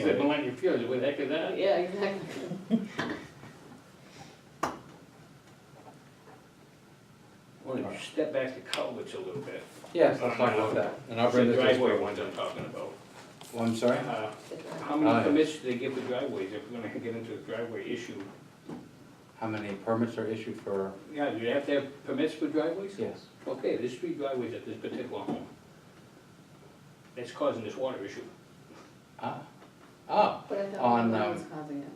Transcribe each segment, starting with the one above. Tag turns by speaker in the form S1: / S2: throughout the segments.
S1: Except Millennium Fields, where the heck is that?
S2: Yeah, exactly.
S1: Wanna step back to culverts a little bit.
S3: Yes, let's talk about that, Um, and I'll
S1: It's the
S3: bring this. as
S1: driveway ones I'm talking about.
S3: Oh, I'm sorry?
S1: Uh,
S2: Good one.
S1: How
S3: Oh,
S1: many
S3: yeah.
S1: permits do they give the driveways if we're gonna get into the driveway issue?
S3: How many permits are issued for,
S1: Yeah, do they have to have permits for driveways?
S3: yes,
S1: Okay, there's three driveways at this particular home. That's causing this water issue.
S3: ah, ah,
S2: But I thought
S3: On,
S2: one
S3: um,
S2: was causing it.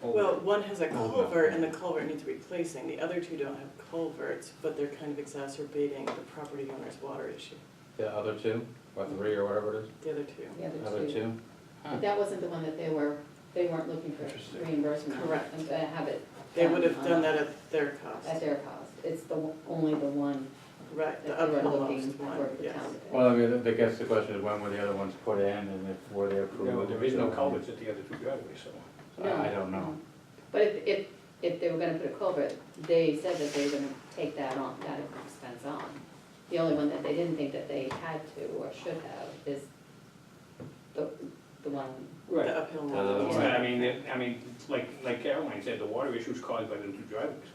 S1: Oh,
S4: Well, one has a
S3: Oh,
S4: culvert
S3: no.
S4: and the culvert needs replacing, the other two don't have culverts, but they're kind of exacerbating the property owner's water issue,
S3: the other two, or three, or whatever it is,
S4: the other two.
S2: The
S3: other two? Huh.
S2: But that wasn't the one that they were, they weren't looking for
S3: Interesting.
S2: reimbursement.
S4: Correct.
S2: And to have it.
S4: They would have
S2: on-
S4: done that at their
S2: At
S4: cost,
S2: their cost. It's the, one- only the one
S4: right,
S2: that
S4: the
S2: they were looking
S4: uppermost
S2: for
S4: one,
S2: the
S4: yes.
S2: town. to pay.
S3: Well, I mean, I guess the question is when were the other ones put in and if were they approved?
S1: Yeah, but there is no
S3: So,
S1: culverts at the other two driveways, so.
S3: I I don't know.
S2: But if, if, if they were gonna put a culvert, they said that they were gonna take that on, that expense on. The only one that they didn't think that they had to or should have is the, the one,
S4: The uphill
S3: The other
S4: one.
S3: one.
S1: Yeah, I mean, it- I mean, like, like Caroline said, the water issue is caused by the two driveways.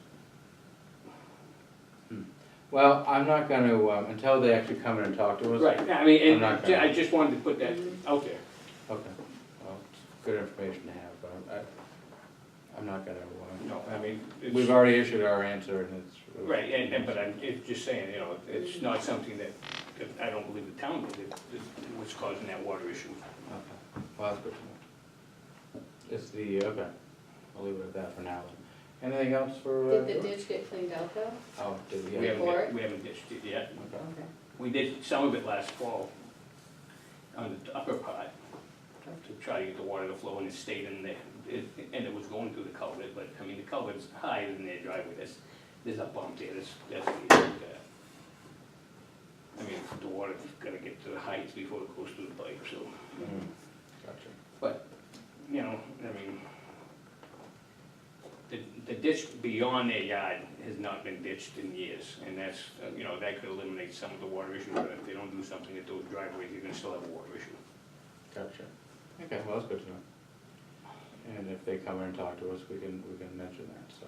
S3: Well, I'm not gonna, um, until they actually come in and talk to us.
S1: Right, I mean,
S3: I'm
S1: and
S3: not
S1: ju- I
S3: gonna-
S1: just wanted to put that
S2: Mhm.
S1: out there.
S3: Okay, well, it's good information to have, but I'm, I- I'm not gonna, um,
S1: No, I mean,
S3: we've
S1: it's,
S3: already issued our answer and it's.
S1: right, and, and, but I'm, it's just saying, you know, it's not something that, that I don't believe the town did, it- it- what's causing that water issue.
S3: Okay, well, that's good to know. It's the, okay, I'll leave it at that for now. Anything else for? uh,
S2: did the ditch get cleaned out though?
S3: Oh, did we?
S1: We haven't,
S2: Before?
S1: we haven't ditched it yet.
S3: Okay.
S2: Okay,
S1: We did some of it last fall on the upper part to try to get the water to flow and it stayed in there. It- And it was going through the culvert, but I mean, the culvert's higher than their driveway. There's, there's a bump there, that's, that's the issue with that. I mean, the water's gotta get to the heights before it goes through the pipe, so,
S3: Mm, Gotcha.
S1: but, you know, I mean, the, the ditch beyond their yard has not been ditched in years, and that's, uh, you know, that could eliminate some of the water issue, but if they don't do something at those driveways, you're gonna still have a water issue.
S3: Gotcha. Okay, well, that's good to know. And if they come in and talk to us, we can, we can mention that, so.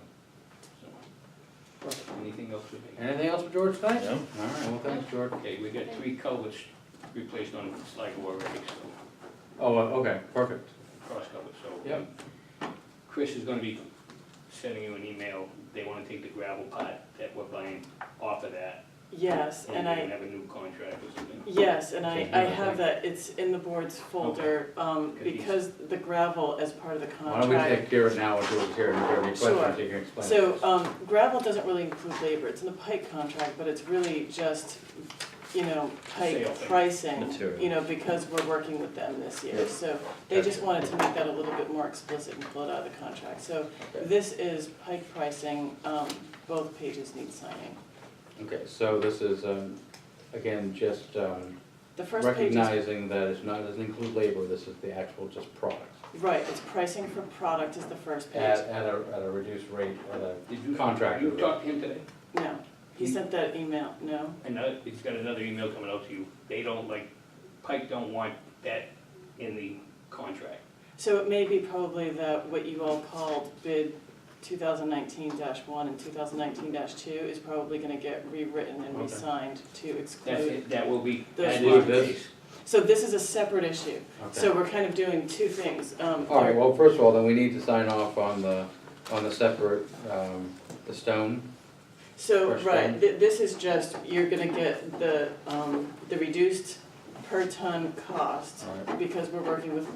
S1: So, anything else we think?
S3: Anything else for George tonight? No. All right, well, thanks, George.
S1: Okay, we got three culverts replaced on Sligo already, so,
S3: Oh, uh, okay, perfect.
S1: cross culverts, so.
S3: Yep.
S1: Chris is gonna be sending you an email, they wanna take the gravel pot that we're buying off of that,
S3: Oh,
S4: Yes,
S1: and
S4: and
S1: we're
S4: I,
S1: gonna have a new contract or something.
S4: Yes, and I,
S3: Okay,
S4: I
S3: yeah,
S4: have that, it's in the board's folder, um,
S1: Good piece.
S4: because the gravel as part of the
S3: Why don't we
S4: contract.
S3: take care of it now, we'll do it here, and if you have any
S4: Sure.
S3: questions, you can explain.
S4: So, um, gravel doesn't really include labor, it's in the Pike contract, but it's really just, you know, Pike
S1: Sale thing.
S4: pricing,
S3: Material.
S4: you know, because we're working with them this
S3: Yeah.
S4: year, so they just wanted to make that a little bit more explicit and pull it out of the contract, so
S3: Okay.
S4: this is Pike pricing, um, both pages need signing.
S3: Okay, so this is, um, again, just, um,
S4: The first page is
S3: recognizing that it's not, doesn't include labor, this is the actual just product.
S4: Right, it's pricing for product is the first page.
S3: At, at a, at a reduced rate, at
S1: Did
S3: a
S1: you-
S3: contractor
S1: You
S3: rate.
S1: talked to him today?
S4: No, he
S1: He-
S4: sent that email, no?
S1: Another, he's got another email coming out to you, they don't like, Pike don't want that in the contract.
S4: So it may be probably that what you all called bid two thousand nineteen one and two thousand nineteen two is probably gonna get rewritten and
S3: Okay.
S4: re-signed to
S1: That's,
S4: exclude.
S1: it. that will be,
S4: Those
S1: that is the
S3: ones.
S1: case.
S4: So this is a separate issue,
S3: Okay.
S4: so we're kind of doing two things, um.
S3: All right, well, first of all, then we need to sign off on the, on the separate, um, the stone.
S4: So,
S3: First
S4: right,
S3: one.
S4: th- this is just, you're gonna get the, um, the reduced per ton cost
S3: All
S4: because we're working with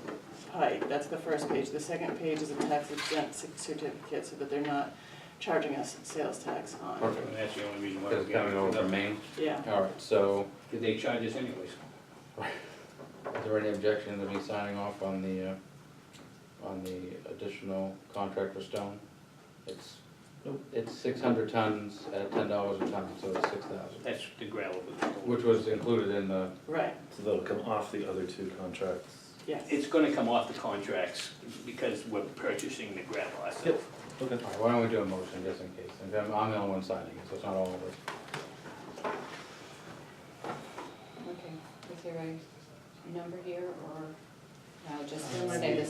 S4: Pike, that's the first page. The second page is a tax exempt cer- certificate so that they're not charging us sales tax on.
S3: Perfect.
S1: And that's the only reason why.
S3: Because
S1: we
S3: it's
S1: got
S3: coming
S1: it.
S3: over from Maine.
S4: Yeah,
S3: All right, so
S1: Did they charge us anyways?
S3: is there any objection to me signing off on the, uh, on the additional contract for stone? It's, it's six hundred tons at ten dollars a ton, so it's six thousand,
S1: That's the gravel. that they don't-
S3: which was included in the,
S4: right,
S5: So that'll come off the other two contracts.
S4: yes.
S1: It's gonna come off the contracts because we're purchasing the gravel ourselves.
S5: Okay.
S3: all right, why don't we do a motion just in case? And I'm, I'm the only one signing it, so it's not all of us.
S2: okay. Is there a number here or I'll just say the